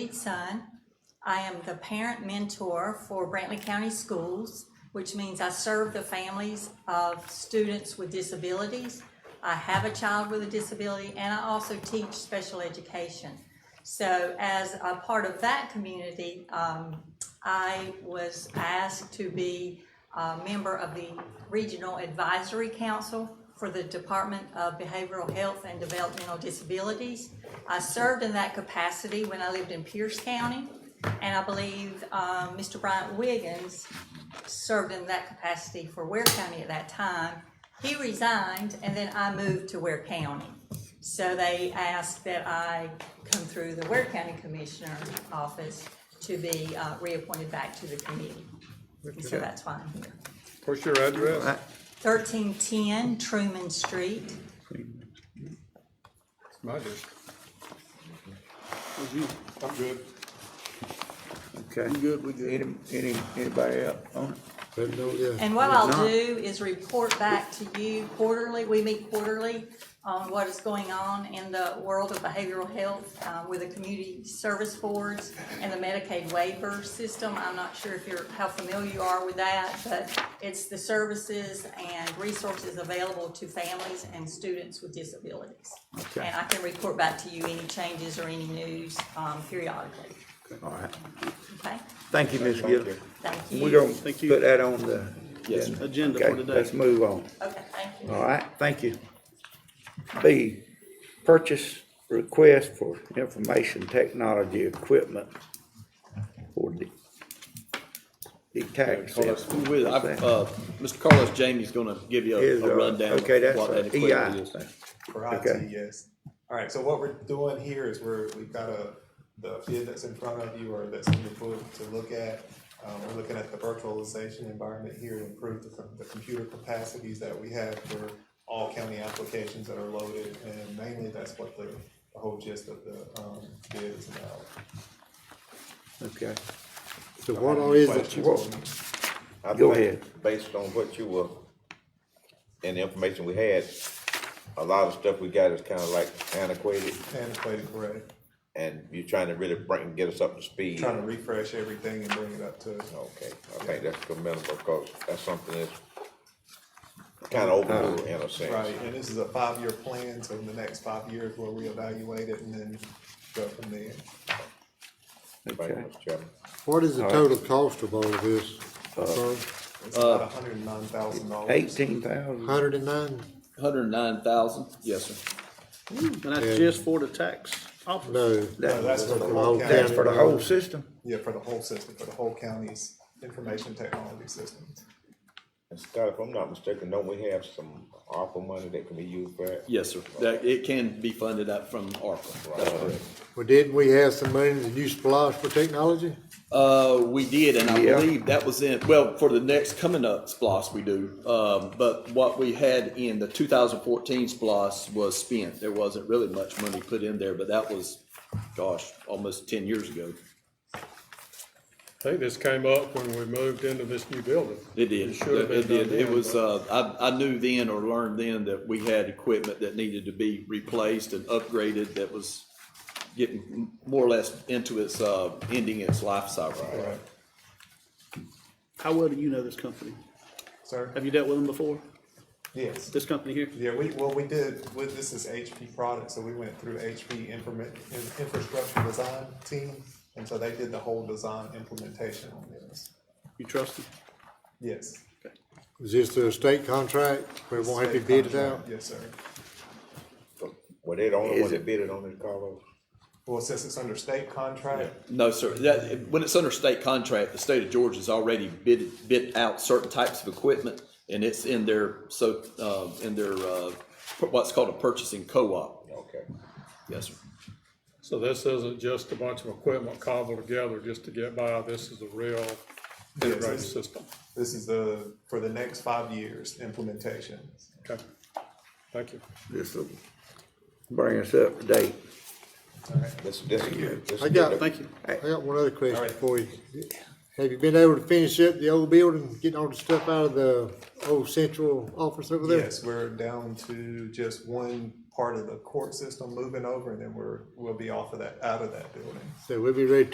Reed Sun. I am the parent mentor for Brantley County Schools, which means I serve the families of students with disabilities. I have a child with a disability, and I also teach special education. So as a part of that community, um, I was asked to be a member of the Regional Advisory Council for the Department of Behavioral Health and Developmental Disabilities. I served in that capacity when I lived in Pierce County, and I believe um, Mr. Bryant Wiggins served in that capacity for Ware County at that time. He resigned, and then I moved to Ware County. So they asked that I come through the Ware County Commissioner office to be uh, reappointed back to the committee. And so that's why I'm here. What's your Uh, address? Thirteen ten Truman Street. My district. Mm-hmm. I'm good. Okay. good, we good. Any, anybody up on it? And what I'll not- do is report back to you quarterly, we meet quarterly, on what is going on in the world of behavioral health uh, with the community service boards and the Medicaid waiver system. I'm not sure if you're, how familiar you are with that, but it's the services and resources available to families and students with disabilities. Okay. And I can report back to you any changes or any news um, periodically, All right. okay? Thank you, Ms. Gillis. Thank you. We're gonna Thank you. put that on the. Yes, agenda for Okay, today. Let's move on. Okay, thank you. All right, thank you. B, purchase request for information technology equipment for the tax. Carlos, who with- I've, uh, Mr. Carlos Jamie's gonna give you Is, a- uh, a rundown of okay, that's what a E that EI. equipment is. For Okay. IT, yes. All right, so what we're doing here is we're, we've got a, the bid that's in front of you or that's in your book to look at. Um, we're looking at the virtualization environment here to improve the, com- the computer capacities that we have for all county applications that are loaded. And mainly that's what the, the whole gist of the, um, bid is about. Okay, So what all is it? Questions? Whoa. I Go think ahead. Based on what you were, and the information we had, a lot of stuff we got is kinda like antiquated, Antiquated, correct. and you're trying to really bring, get us up to speed. Trying to refresh everything and bring it up to. uh, Okay, I think that's commendable, because that's something that's kinda Uh-huh. overlooked in a sense. Right, and this is a five-year plan, so in the next five years, we'll reevaluate it and then go from there. Thank you, okay. Mr. Chairman. What is the total cost of all of this? Uh, It's about hundred and nine thousand dollars. Eighteen thousand, Hundred and nine? Hundred and nine thousand, yes, sir. And that's And- just for the tax office? No, No, that's for the whole Whole that's county. for the whole system? Yeah, for the whole system, for the whole county's information technology system. And Scott, if I'm not mistaken, don't we have some ARPA money that can be used for that? Yes, sir. That, it can be funded up from ARPA. That's correct. well, didn't we have some money that you splosh for technology? Uh, we did, and I Yeah. believe that was in, well, for the next coming up splos we do. Um, but what we had in the two thousand fourteen splos was spent. There wasn't really much money put in there, but that was, gosh, almost ten years ago. I think this came up when we moved into this new building. It did. should have It been did. done It then, was, but- uh, I, I knew then or learned then that we had equipment that needed to be replaced and upgraded that was getting more or less into its, uh, ending its life cycle. Right, How well do you know this company? sir? Have you dealt with them before? Yes. This company here? Yeah, we, well, we did, with, this is HP product, so we went through HP informa- in- infrastructure design team. And so they did the whole design implementation on this. You trust them? Yes. Is this a state contract where it won't have to State bid it out? contract, Yes, sir. Were they the only Is one it- that bid it on it, Carlos? Well, since it's under state contract, No, sir. That, when it's under state contract, the state of Georgia's already bid, bid out certain types of equipment and it's in their, so, uh, in their, uh, what's called a purchasing co-op. Okay. Yes, sir. So this isn't just a bunch of equipment cobbled together just to get by. This is a real integrated it's- system. This is the, for the next five years implementation. Okay. Thank you. This will bring us up to date. This, this is good. This is I got, good. thank you. I got one other question Alright. for you. Have you been able to finish up the old building, getting all the stuff out of the old central office over there? Yes, we're down to just one part of the court system moving over, and then we're, we'll be off of that, out of that building. So we'll be ready to